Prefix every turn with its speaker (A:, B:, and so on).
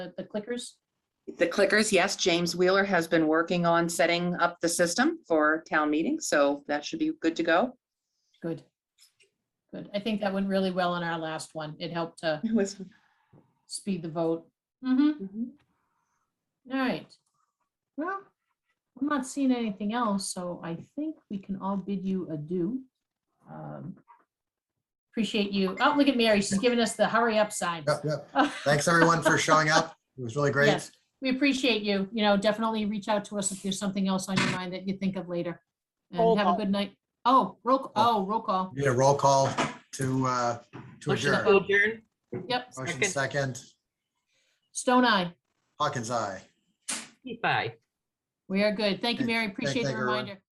A: the the clickers?
B: The clickers, yes, James Wheeler has been working on setting up the system for town meeting, so that should be good to go.
A: Good. Good. I think that went really well on our last one. It helped to
B: It was-
A: speed the vote. Mm-hmm. All right. Well, I'm not seeing anything else, so I think we can all bid you adieu. Um, Appreciate you. Oh, look at Mary. She's giving us the hurry up signs.
C: Yep, yep. Thanks, everyone, for showing up. It was really great.
A: Yes, we appreciate you. You know, definitely reach out to us if there's something else on your mind that you think of later.
D: Roll
A: And have a
D: call.
A: good night. Oh, roll, oh, roll call.
C: Need a roll call to, uh, to
D: Motion
C: adjourn.
D: to adjourn.
A: Yep,
C: Motion
D: Second.
C: second,
A: Stone Eye.
C: Hawkins, aye.
D: Bye.
A: We are good. Thank you,
C: Thank-
A: Mary. Appreciate the
C: thank everyone.
A: reminder.